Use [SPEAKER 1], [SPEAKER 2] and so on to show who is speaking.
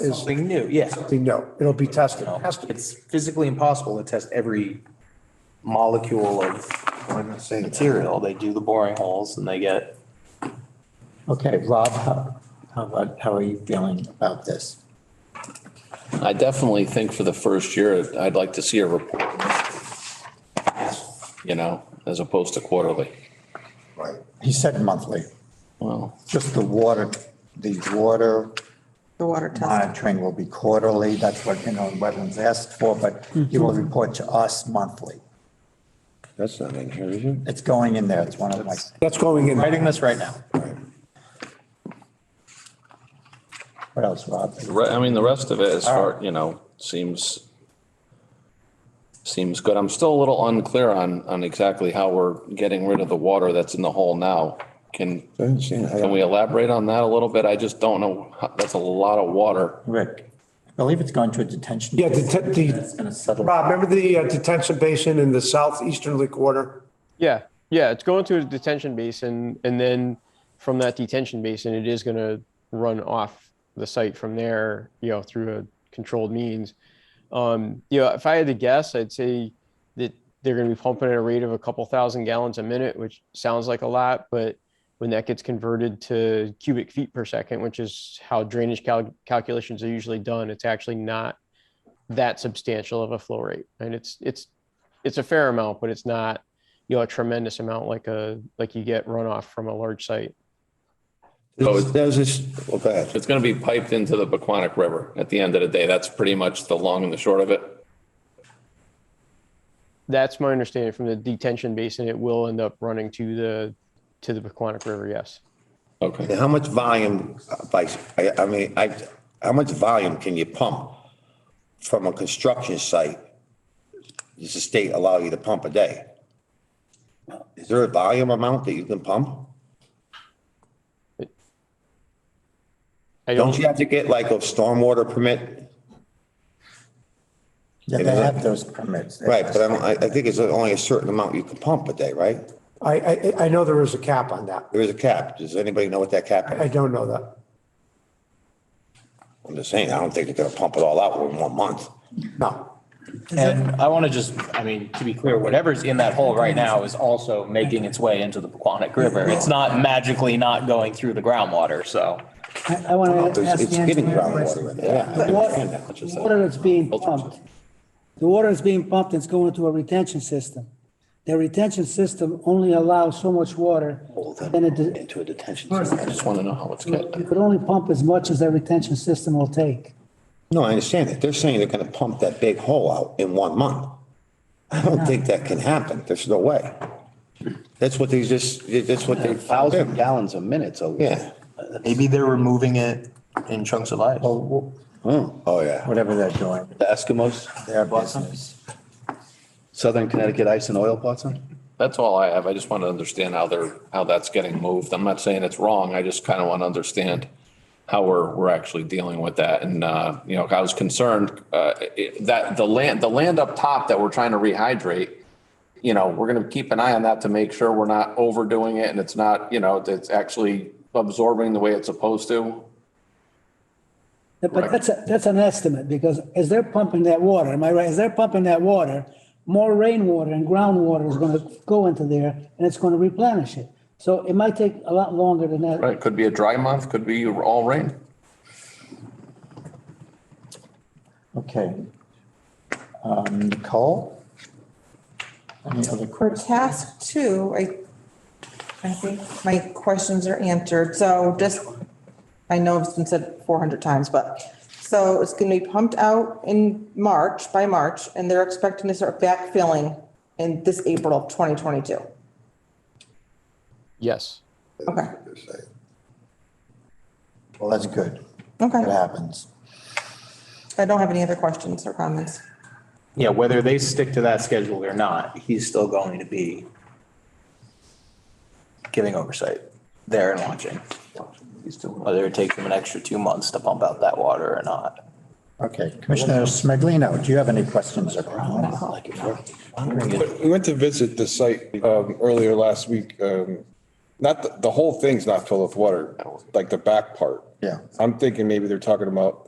[SPEAKER 1] is
[SPEAKER 2] Something new, yeah.
[SPEAKER 1] something new. It'll be tested.
[SPEAKER 2] It's physically impossible to test every molecule of
[SPEAKER 1] I'm not saying that.
[SPEAKER 2] material. They do the boring holes and they get.
[SPEAKER 3] Okay, Rob, how, how about, how are you feeling about this?
[SPEAKER 4] I definitely think for the first year, I'd like to see a report. You know, as opposed to quarterly.
[SPEAKER 3] Right. He said monthly,
[SPEAKER 4] Well,
[SPEAKER 3] just the water, the water
[SPEAKER 5] The water test.
[SPEAKER 3] monitoring will be quarterly, that's what, you know, wetlands asked for, but he will report to us monthly.
[SPEAKER 6] That's not in here, is it?
[SPEAKER 3] It's going in there, it's one of my,
[SPEAKER 1] That's going in.
[SPEAKER 3] writing this right now. What else, Rob?
[SPEAKER 4] the re- I mean, the rest of it as far, you know, seems, seems good. I'm still a little unclear on, on exactly how we're getting rid of the water that's in the hole now. Can,
[SPEAKER 6] I didn't see it. I
[SPEAKER 4] can we
[SPEAKER 6] don't-
[SPEAKER 4] elaborate on that a little bit? I just don't know. how- That's a lot of water.
[SPEAKER 3] Rick, I believe it's going to a detention.
[SPEAKER 1] Yeah, the, te- the,
[SPEAKER 3] It's gonna settle.
[SPEAKER 1] Rob, remember the uh, detention basin in the southeasterly quarter?
[SPEAKER 7] Yeah, yeah, it's going to a detention basin, and then from that detention basin, it is going to run off the site from there, you know, through a controlled means. Um, you know, if I had to guess, I'd say that they're going to be pumping at a rate of a couple thousand gallons a minute, which sounds like a lot, but when that gets converted to cubic feet per second, which is how drainage cal- calculations are usually done, it's actually not that substantial of a flow rate, and it's it's it's a fair amount, but it's not you know a tremendous amount like a like you get runoff from a large site
[SPEAKER 4] So it's-
[SPEAKER 6] There's this, well, bad.
[SPEAKER 4] It's going to be piped into the Paquonic River at the end of the day. That's pretty much the long and the short of it.
[SPEAKER 7] that's my understanding from the detention basin it will end up running to the to the Pequannock river yes
[SPEAKER 4] Okay.
[SPEAKER 6] How much volume, uh, by, I, I mean, I, how much volume can you pump from a construction site? Does the state allow you to pump a day? Is there a volume amount that you can pump?
[SPEAKER 7] i don't
[SPEAKER 6] Don't you have to get like a stormwater permit?
[SPEAKER 3] Yeah, they have those permits.
[SPEAKER 6] Right, but I don't, I, I think it's only a certain amount you can pump a day, right?
[SPEAKER 1] I, I, I know there is a cap on that.
[SPEAKER 6] There is a cap. Does anybody know what that cap
[SPEAKER 1] I
[SPEAKER 6] is?
[SPEAKER 1] don't know that.
[SPEAKER 6] I'm just saying, I don't think they're gonna pump it all out in one month.
[SPEAKER 1] No.
[SPEAKER 2] And I want to just, I mean, to be clear, whatever's in that hole right now is also making its way into the Paquonic River. It's not magically not going through the groundwater, so.
[SPEAKER 8] I, I want to
[SPEAKER 6] It's
[SPEAKER 8] ask
[SPEAKER 6] it's
[SPEAKER 8] Andrew.
[SPEAKER 6] getting groundwater in there.
[SPEAKER 8] The water the water that's being pumped, the water that's being pumped is going into a retention system. The retention system only allows so much water, and it,
[SPEAKER 6] Into a detention.
[SPEAKER 4] I just want to know how it's
[SPEAKER 8] you
[SPEAKER 4] getting.
[SPEAKER 8] could only pump as much as that retention system will take.
[SPEAKER 6] No, I understand that. They're saying they're gonna pump that big hole out in one month. I don't think that can happen. There's no way. That's what they just, that's what they.
[SPEAKER 9] thousand gallons a minute, so.
[SPEAKER 6] Yeah.
[SPEAKER 2] Maybe they're removing it in chunks of ice.
[SPEAKER 3] Well,
[SPEAKER 6] Oh, yeah.
[SPEAKER 3] Whatever they're doing,
[SPEAKER 9] The Eskimos,
[SPEAKER 3] their business.
[SPEAKER 9] Southern Connecticut Ice and Oil Watson?
[SPEAKER 4] That's all I have. I just want to understand how they're, how that's getting moved. I'm not saying it's wrong. I just kind of want to understand how we're, we're actually dealing with that. And, uh, you know, I was concerned, uh, it- that the land, the land up top that we're trying to rehydrate, you know, we're going to keep an eye on that to make sure we're not overdoing it and it's not, you know, it's actually absorbing the way it's supposed to.
[SPEAKER 8] But that's, a- that's an estimate, because as they're pumping that water, am I right, as they're pumping that water, more rainwater and groundwater is gonna go into there, and it's gonna replenish it. So it might take a lot longer than that.
[SPEAKER 4] Right? Could be a dry month, could be all rain.
[SPEAKER 3] Okay. Um, Nicole? Any other
[SPEAKER 5] For
[SPEAKER 3] questions?
[SPEAKER 5] task two, I, I think my questions are answered. So just, I know it's been said 400 times, but, so it's going to be pumped out in March, by March, and they're expecting to start backfilling in this April of 2022.
[SPEAKER 7] yes
[SPEAKER 5] Okay,
[SPEAKER 3] Well, that's good. It
[SPEAKER 5] okay.
[SPEAKER 3] happens.
[SPEAKER 5] I don't have any other questions or comments.
[SPEAKER 2] Yeah, whether they stick to that schedule or not, he's still going to be giving oversight there and watching. Whether it takes him an extra two months to pump out that water or not.
[SPEAKER 3] Okay, Commissioner Smiglino, do you have any questions or comments?
[SPEAKER 10] We went to visit the site um, earlier last week. um, Not, the- the whole thing's not filled with water, like the back part.
[SPEAKER 3] Yeah.
[SPEAKER 10] I'm thinking maybe they're talking about